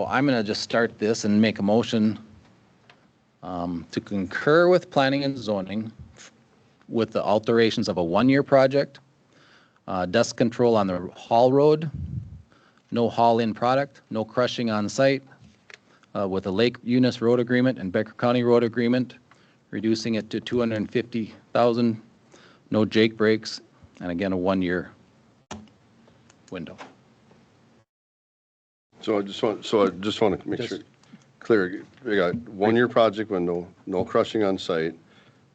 Well, I'm going to just start this and make a motion um, to concur with planning and zoning with the alterations of a one-year project, uh, dust control on the haul road, no haul-in product, no crushing on site, uh, with the Lake Eunice Road Agreement and Becker County Road Agreement, reducing it to 250,000, no jake breaks, and again, a one-year window. So I just want, so I just want to make sure, clear, we got one-year project window, no crushing on site,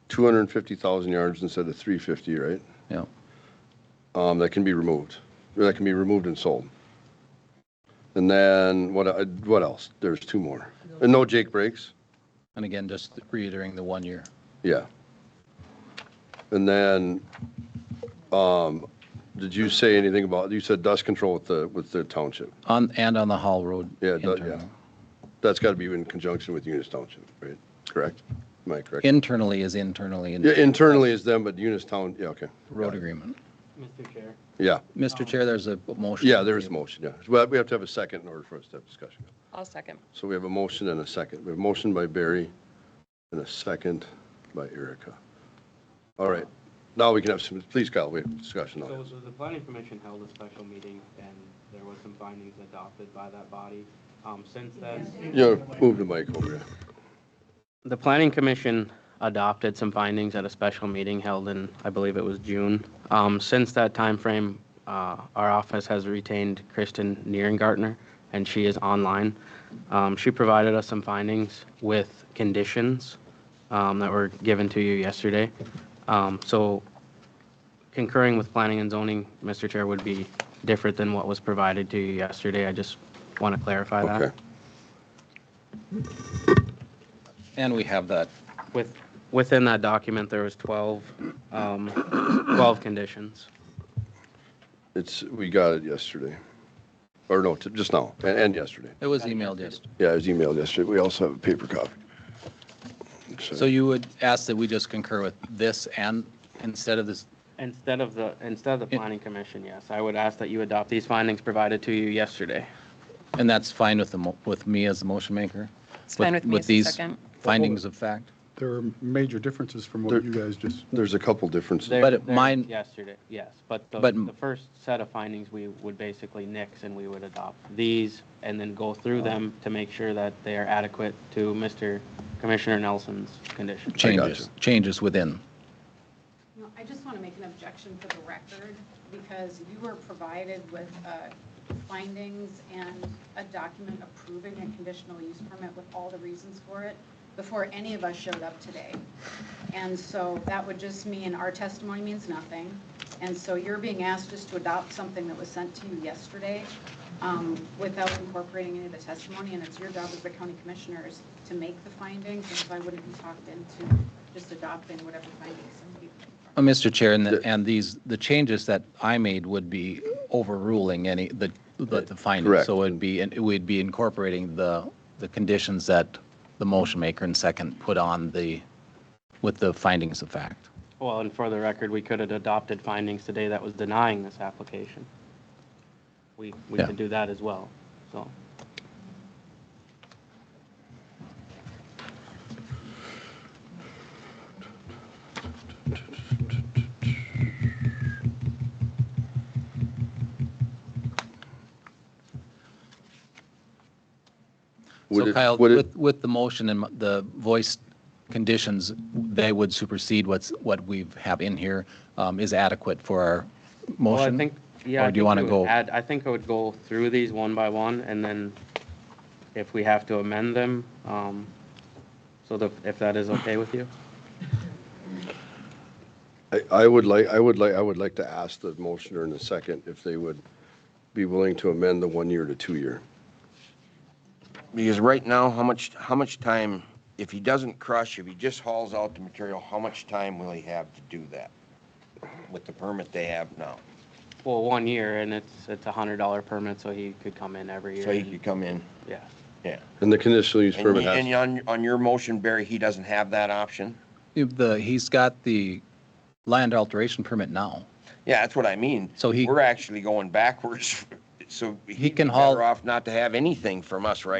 250,000 yards instead of 350, right? Yeah, Um, That can be removed, or that can be removed and sold. And then what, I- what else? There's two more. And no Jake breaks? and again, just reiterating the one-year. Yeah. And then, um, did you say anything about, you said dust control with the, with the township? On, and on the Hall Road. Yeah, it does, yeah. internal. That's got to be in conjunction with Unis Township, right? Correct? Am I correct? Internally is internally in Yeah, internally is them, but Unis Town, yeah, okay. road agreement. Mr. Chair. Yeah, Mr. Chair, there's a motion. yeah, there is a motion, yeah. Well, we have to have a second in order for us to have discussion. I'll second. So we have a motion and a second. We have a motion by Barry and a second by Erica. All right, now we can have some, please Kyle, we have discussion on So, it. so the planning commission held a special meeting and there was some findings adopted by that body. Um, since then, Yeah, move the mic over here. the planning commission adopted some findings at a special meeting held in, I believe it was June. Um, since that timeframe, uh, our office has retained Kristen Nierengartner and she is online. Um, she provided us some findings with conditions, um, that were given to you yesterday. Um, so concurring with planning and zoning, Mr. Chair, would be different than what was provided to you yesterday. I just want to clarify Okay. that. And we have that. With, within that document, there was 12, um, 12 conditions. It's, we got it yesterday, or no, t- just now, and, and yesterday. It was emailed yesterday. Yeah, it was emailed yesterday. We also have a paper copy. So you would ask that we just concur with this and instead of this, Instead of the, instead of the Yeah. planning commission, yes, I would ask that you adopt these findings provided to you yesterday. and that's fine with the, mo- with me as the motion maker? It's fine with me as the these second. Findings of fact? There are major differences from There- what you guys just, There's a couple differences. They're- But it- they're mine- Yesterday, yes, but the, But- the first set of findings, we would basically nix and we would adopt these and then go through them to make sure that they are adequate to Mr. Commissioner Nelson's condition. Changes, changes within. No, I just want to make an objection for the record, because you were provided with uh, findings and a document approving a conditional use permit with all the reasons for it before any of us showed up today. And so that would just mean our testimony means nothing. And so you're being asked just to adopt something that was sent to you yesterday um, without incorporating any of the testimony, and it's your job as the county commissioners to make the findings, and so I wouldn't be talked into just adopting whatever findings somebody. Uh, Mr. Chair, and, the- and these, the changes that I made would be overruling any, the, the the findings. Correct. So it'd be, and we'd be incorporating the, the conditions that the motion maker and second put on the, with the findings of fact. Well, and for the record, we could have adopted findings today that was denying this application. We, we Yeah. could do that as well, so. Would So it- Kyle, would it- with, with the motion and the voice conditions, they would supersede what's, what we have in here um, is adequate for our Well, I motion? think, yeah. I Or do you think want to we would go? add- I think I would go through these one by one, and then if we have to amend them, um, so that, if that is okay with you? I, I would like, I would like, I would like to ask the motioner in a second if they would be willing to amend the one-year to two-year. Because right now, how much, how much time, if he doesn't crush, if he just hauls out the material, how much time will he have to do that? With the permit they have now? Well, one year, and it's, it's a hundred dollar permit, so he could come in every year. So he and- could come in, Yeah. yeah. And the conditional use And permit you- and has, you- on, on your motion, Barry, he doesn't have that option? If The, he's got the land alteration permit now. Yeah, that's what I mean. So he- We're actually going backwards, so He he'd be can haul- better off not to have anything from us right